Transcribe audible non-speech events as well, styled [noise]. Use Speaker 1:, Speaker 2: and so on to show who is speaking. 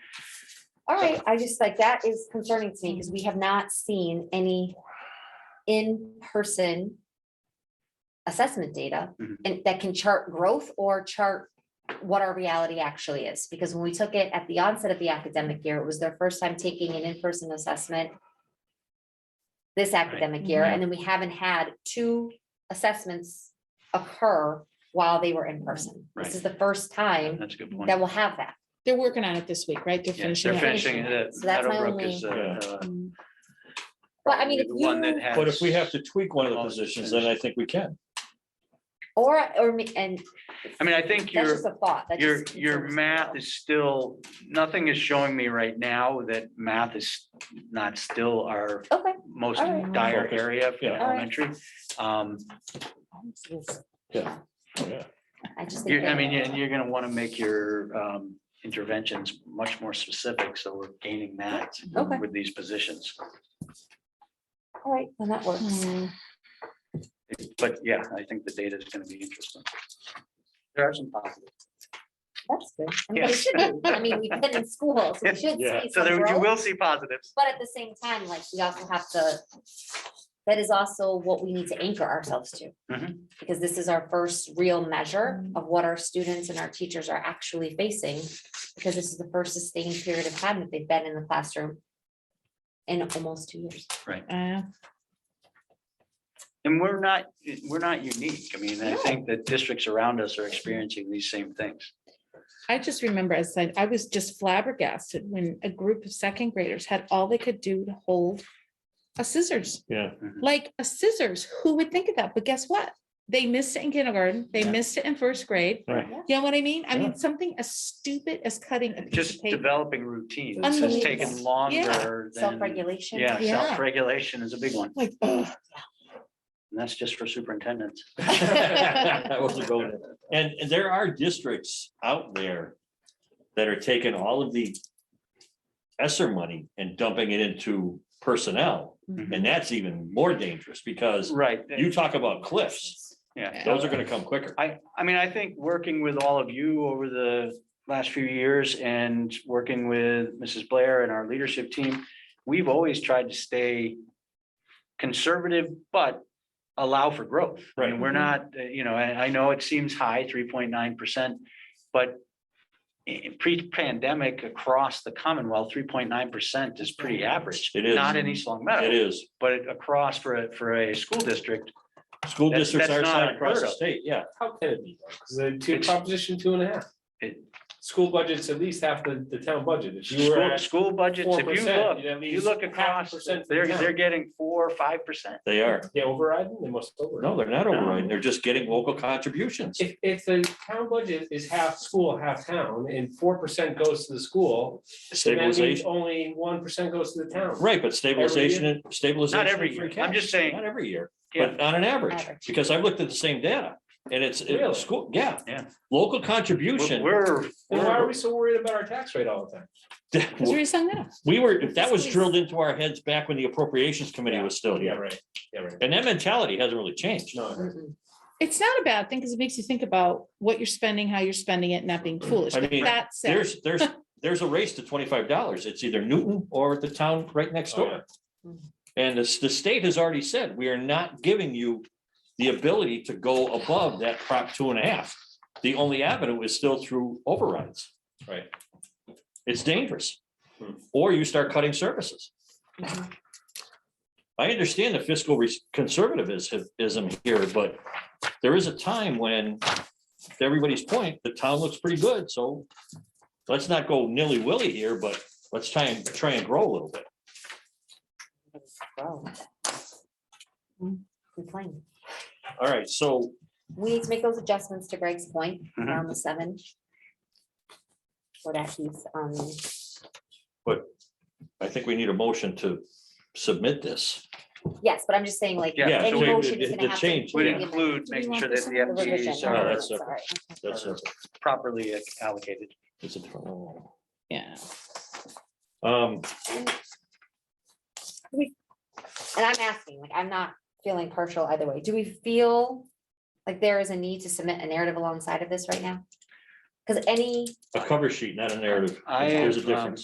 Speaker 1: All right, I just like that is concerning to me because we have not seen any in-person assessment data
Speaker 2: Mhm.
Speaker 1: and that can chart growth or chart what our reality actually is. Because when we took it at the onset of the academic year, it was their first time taking an in-person assessment this academic year, and then we haven't had two assessments occur while they were in person. This is the first time
Speaker 2: That's a good point.
Speaker 1: that we'll have that.
Speaker 3: They're working on it this week, right? They're
Speaker 2: Yeah,
Speaker 3: finishing.
Speaker 2: they're
Speaker 3: it.
Speaker 2: finishing it.
Speaker 1: So that's my
Speaker 2: Meadowbrook
Speaker 1: only-
Speaker 2: is, uh, uh,
Speaker 3: Mm.
Speaker 1: But I mean,
Speaker 2: probably
Speaker 1: if
Speaker 2: the one that
Speaker 1: you-
Speaker 2: has-
Speaker 4: But if we have to tweak one of the
Speaker 2: All the
Speaker 4: positions, then I think we can.
Speaker 1: Or, or, me- and
Speaker 2: I mean, I think
Speaker 1: That's
Speaker 2: your,
Speaker 1: just a thought. that
Speaker 2: your,
Speaker 1: just
Speaker 2: your
Speaker 1: concerns me,
Speaker 2: math
Speaker 1: though.
Speaker 2: is still, nothing is showing me right now that math is not still our
Speaker 1: Okay,
Speaker 2: most
Speaker 1: All right.
Speaker 2: dire
Speaker 4: Focus.
Speaker 2: area for
Speaker 4: Yeah.
Speaker 1: All right.
Speaker 2: elementary. Um,
Speaker 4: Oh, yeah.
Speaker 1: I just. think
Speaker 2: You're, I
Speaker 1: that-
Speaker 2: mean, and you're gonna wanna make your um interventions much more specific, so we're gaining that
Speaker 1: Okay.
Speaker 2: with these positions.
Speaker 1: All right, then that works.
Speaker 3: Mm.
Speaker 2: But yeah, I think the data is gonna be interesting. There are some positive.
Speaker 1: That's good. I mean, we
Speaker 2: Yes.
Speaker 1: should be- I mean, we've been in school, so
Speaker 2: [laughs]
Speaker 1: we should
Speaker 4: Yeah.
Speaker 1: see
Speaker 2: So
Speaker 1: some
Speaker 2: there, you
Speaker 1: growth,
Speaker 2: will see positives.
Speaker 1: But at the same time, like, we also have to, that is also what we need to anchor ourselves to.
Speaker 2: Mhm.
Speaker 1: Because this is our first real measure of what our students and our teachers are actually facing. Because this is the first sustained period of time that they've been in the classroom in almost two years.
Speaker 3: Uh,
Speaker 2: And we're not, we're not unique. I mean, I
Speaker 1: No.
Speaker 2: think that districts around us are experiencing these same things.
Speaker 3: I just remember, as I said, I was just flabbergasted when a group of second graders had all they could do to hold a scissors,
Speaker 4: Yeah.
Speaker 3: like a scissors. Who would think of that? But guess what? They missed it in kindergarten. They
Speaker 2: Yeah.
Speaker 3: missed it in first grade.
Speaker 4: Right.
Speaker 1: Yeah.
Speaker 3: You know what I mean? I
Speaker 4: Yeah.
Speaker 3: mean, something as stupid as cutting a piece
Speaker 2: Just
Speaker 3: of paper.
Speaker 2: developing routines It's just taken
Speaker 3: Unbelievable.
Speaker 2: longer than,
Speaker 1: Self-regulation.
Speaker 2: yeah,
Speaker 3: Yeah.
Speaker 2: self-regulation is a big one. [laughs]
Speaker 3: Like, ugh.
Speaker 2: And that's just for superintendents.
Speaker 4: I wasn't going there. And and there are districts out there that are taking all of the ESSER money and dumping it into personnel.
Speaker 3: Mhm.
Speaker 4: And that's even more dangerous because
Speaker 2: Right.
Speaker 4: you talk about cliffs,
Speaker 2: Yeah.
Speaker 4: those are gonna come quicker.
Speaker 2: I, I mean, I think working with all of you over the last few years and working with Mrs. Blair and our leadership team, we've always tried to stay conservative, but allow for growth. I mean,
Speaker 4: Right.
Speaker 2: We're not, uh, you know, I, I know it seems high, three point nine percent, but i- pre-pandemic across the Commonwealth, three point nine percent is pretty average.
Speaker 4: It is.
Speaker 2: Not in East Long
Speaker 4: It
Speaker 2: Meadow,
Speaker 4: is.
Speaker 2: but across for a, for a school district,
Speaker 4: School
Speaker 2: That's-
Speaker 4: districts
Speaker 2: that's
Speaker 4: are
Speaker 2: not
Speaker 4: signed across
Speaker 2: unheard
Speaker 4: the
Speaker 2: of.
Speaker 4: state, yeah.
Speaker 5: How can it be? Because the two,
Speaker 2: It's-
Speaker 5: proposition two and a half.
Speaker 2: It-
Speaker 5: School budget's at least half the, the town budget. If you were
Speaker 2: School,
Speaker 5: at
Speaker 2: school budgets,
Speaker 5: four
Speaker 2: if you look,
Speaker 5: percent, you'd at
Speaker 2: you
Speaker 5: least.
Speaker 2: look
Speaker 5: half a
Speaker 2: across,
Speaker 5: percent for
Speaker 2: they're,
Speaker 5: the town.
Speaker 2: they're getting four, five percent.
Speaker 4: They are.
Speaker 5: They overriding, they must
Speaker 4: No,
Speaker 5: override.
Speaker 4: they're not overriding. They're just getting local contributions.
Speaker 5: If, if the town budget is half school, half town, and four percent goes to the school, then that means
Speaker 4: Stabilization,
Speaker 5: only one percent goes to the town.
Speaker 4: right, but stabilization, and stabilization.
Speaker 2: Not every
Speaker 4: and free
Speaker 2: year. I'm
Speaker 4: cash.
Speaker 2: just saying-
Speaker 4: Not every year.
Speaker 2: Yeah,
Speaker 4: but on an average,
Speaker 1: Average.
Speaker 4: because I've looked at the same data and it's,
Speaker 5: Really?
Speaker 4: it's school, yeah.
Speaker 2: Yeah.
Speaker 4: Local
Speaker 2: we're-
Speaker 4: contribution.
Speaker 2: we're,
Speaker 5: Then why are we
Speaker 2: we're,
Speaker 5: so worried about our tax rate all the time?
Speaker 3: That's where you sung that.
Speaker 4: [laughs] We were, that was drilled into our heads back when the appropriations committee was still
Speaker 5: Yeah,
Speaker 4: here.
Speaker 5: right, yeah, right.
Speaker 4: And that mentality hasn't really changed.
Speaker 5: No, I agree.
Speaker 1: Mm-mm.
Speaker 3: It's not a bad thing because it makes you think about what you're spending, how you're spending it, and not being foolish.
Speaker 4: I
Speaker 3: But
Speaker 4: mean,
Speaker 3: That said,
Speaker 4: There's, there's, there's a race to twenty-five dollars. It's either Newton or the town right next
Speaker 5: Oh,
Speaker 4: door. And the, the state has already said, we are not giving you the ability to go above that prop two and a half. The only avenue is still through overrides.
Speaker 5: Right.
Speaker 4: It's dangerous.
Speaker 5: Hmm.
Speaker 4: Or you start cutting services.
Speaker 1: Mhm.
Speaker 4: I understand the fiscal res- conservativism here, but there is a time when, to everybody's point, the town looks pretty good, so let's not go nilly-willy here, but let's try and, try and grow a little bit.
Speaker 1: Wow. Complain.
Speaker 4: All right, so
Speaker 1: We need to make those adjustments to Greg's point
Speaker 2: Mhm.
Speaker 1: around the seven. For that piece, um,
Speaker 4: I think we need a motion to submit this.
Speaker 1: yes, but I'm just saying like.
Speaker 2: Yeah,
Speaker 4: Yeah,
Speaker 1: any
Speaker 4: so we-
Speaker 1: motion
Speaker 4: the-
Speaker 1: is gonna
Speaker 4: the
Speaker 1: have to
Speaker 4: change,
Speaker 2: would
Speaker 1: be
Speaker 4: yeah.
Speaker 1: given
Speaker 2: include
Speaker 3: Do we
Speaker 2: making
Speaker 3: want
Speaker 2: sure
Speaker 3: this
Speaker 2: that
Speaker 3: in
Speaker 2: the
Speaker 3: the
Speaker 1: the revision.
Speaker 2: FTEs
Speaker 4: Oh,
Speaker 2: are
Speaker 4: that's separate.
Speaker 1: Sorry.
Speaker 4: That's a,
Speaker 2: properly allocated.
Speaker 4: it's a different one.
Speaker 3: yeah.
Speaker 4: Um,
Speaker 1: And I'm asking, like, I'm not feeling partial either way. Do we feel like there is a need to submit a narrative alongside of this right now? Because any
Speaker 4: a cover sheet, not a narrative.
Speaker 2: I
Speaker 4: There's a
Speaker 2: have, um,
Speaker 4: difference.